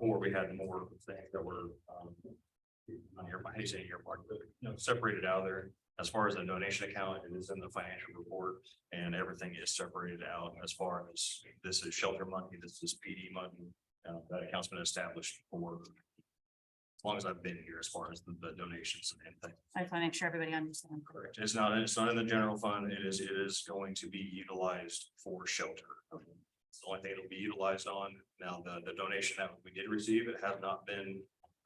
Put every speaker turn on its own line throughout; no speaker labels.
we had more things that were, um. Not here, I hate saying earmarked, but, you know, separated out of there. As far as the donation account, it is in the financial report and everything is separated out as far as this is shelter money, this is PD money. Uh, that account's been established for. As long as I've been here, as far as the, the donations and things.
I just want to make sure everybody understands.
Correct. It's not, it's not in the general fund. It is, it is going to be utilized for shelter. It's the only thing it'll be utilized on. Now, the, the donation that we did receive, it has not been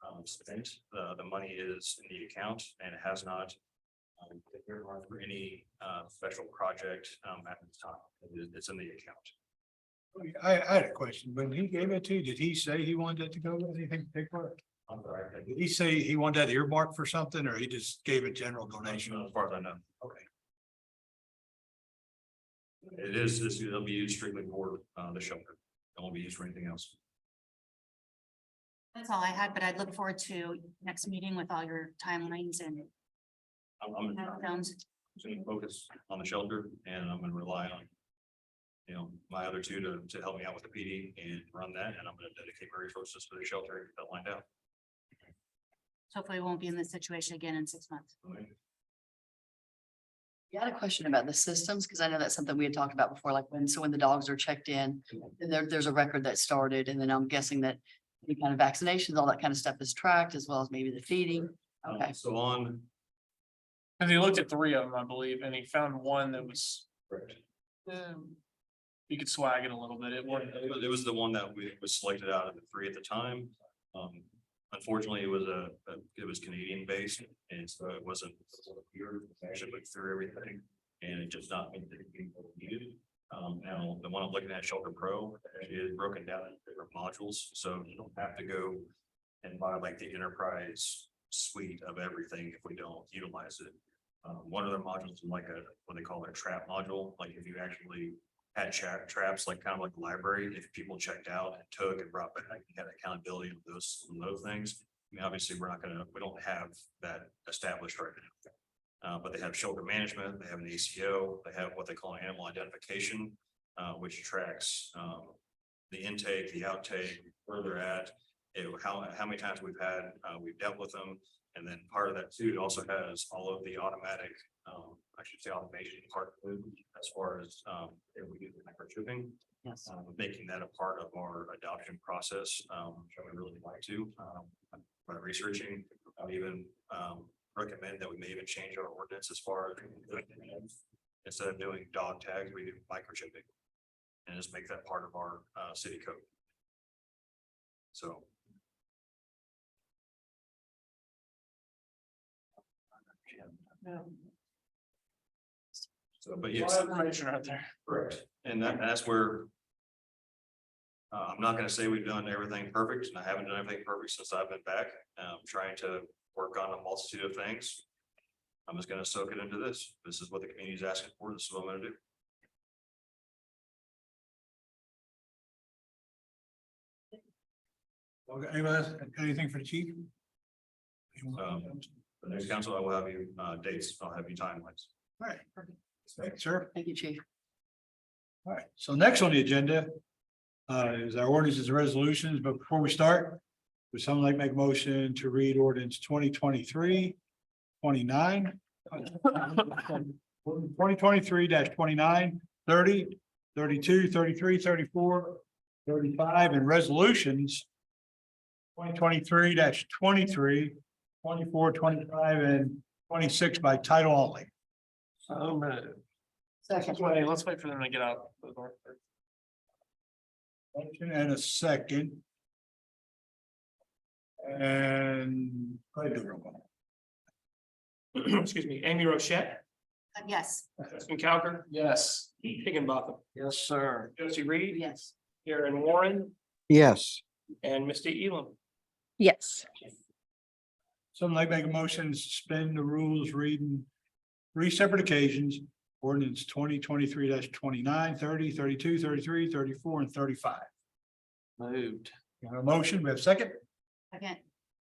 um, spent. The, the money is in the account and it has not um, been earmarked for any, uh, special project, um, at this time. It is, it's in the account.
I, I had a question. When he gave it to you, did he say he wanted that to go with anything particular?
I'm sorry. I
Did he say he wanted that earmarked for something or he just gave a general donation?
As far as I know.
Okay.
It is, it's- it'll be used strictly for, uh, the shelter. It won't be used for anything else.
That's all I had, but I'd look forward to next meeting with all your timelines and
I'm, I'm
milestones.
going to focus on the shelter and I'm gonna rely on. You know, my other two to, to help me out with the PD and run that, and I'm gonna dedicate my resources to the shelter and get that lined out.
Hopefully we won't be in this situation again in six months.
Yeah, I had a question about the systems, because I know that's something we had talked about before, like when, so when the dogs are checked in, then there, there's a record that started, and then I'm guessing that any kind of vaccinations, all that kind of stuff is tracked, as well as maybe the feeding.
Um,
Okay,
So on.
And he looked at three of them, I believe, and he found one that was,
Correct.
um, you could swag it a little bit. It wasn't,
It was- it was the one that we was selected out of the three at the time. Um, unfortunately, it was a, a- it was Canadian based and so it wasn't. Here, actually looked through everything and it just not meant that it being needed. Um, now, the one I'm looking at, Shelter Pro, it is broken down into different modules, so you don't have to go. And buy like the enterprise suite of everything if we don't utilize it. Um, one of their modules, is like a, what they call their trap module, like if you actually had tra- traps, like kind of like the library, if people checked out and took and brought back, you had accountability of those, of those things. I mean, obviously, we're not gonna, we don't have that established right now. Uh, but they have shoulder management, they have an ACO, they have what they call an animal identification, uh, which tracks, um. The intake, the outtake, where they're at, it, how, how many times we've had, uh, we've dealt with them. And then part of that too, it also has all of the automatic, um, I should say automation part of it, as far as, um, if we do the microchipping,
yes.
um, making that a part of our adoption process, um, which I would really like to, um, by researching, I would even, um, recommend that we may even change our ordinance as far as instead of doing dog tags, we do microchipping. And just make that part of our, uh, city code. So. So, but
a
yes.
lot of information out there.
Correct. And that, that's where. Uh, I'm not gonna say we've done everything perfect, and I haven't done everything perfect since I've been back, um, trying to work on a multitude of things. I'm just gonna soak it into this. This is what the community's asking for. This is what I'm gonna do.
Okay, Anybody else, anything for the chief?
Um, The next council, I will have you, uh, dates, I'll have you timelines.
Alright, thanks, sir.
Thank you, chief.
All right, so next on the agenda uh, is our ordinances and resolutions, but before we start, would someone like to make a motion to read ordinance 2023 29 Twenty twenty-three 29 30 32 33 34 35 and resolutions twenty twenty-three 23 24 25 and twenty-six by title only.
Oh, man.
Second,
Let's wait, let's wait for them to get out. the door first.
Motion and a second. And. go ahead, do the roll call.
Excuse me, Amy Rochette,
Uh, Yes,
Justin Calgar. Yes. Higginbotham.
Yes, sir.
Josie Reed.
yes.
Aaron Warren
Yes,
and Misty Elam.
Yes,
Something like make a motion, to suspend the rules, reading three separate occasions, ordinance twenty twenty-three 29 30 32 33 34, and thirty-five.
Moved.
You have a motion, we have a second?
again,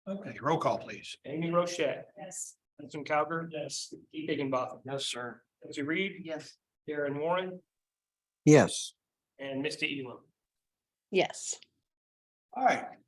Okay, roll call, please.
Amy Rochette,
yes.
Justin Calgar. Yes. Keith Higginbotham.
Yes, sir.
Josie Reed,
Yes.
Aaron Warren
yes.
and Misty Elam.
yes.
All right,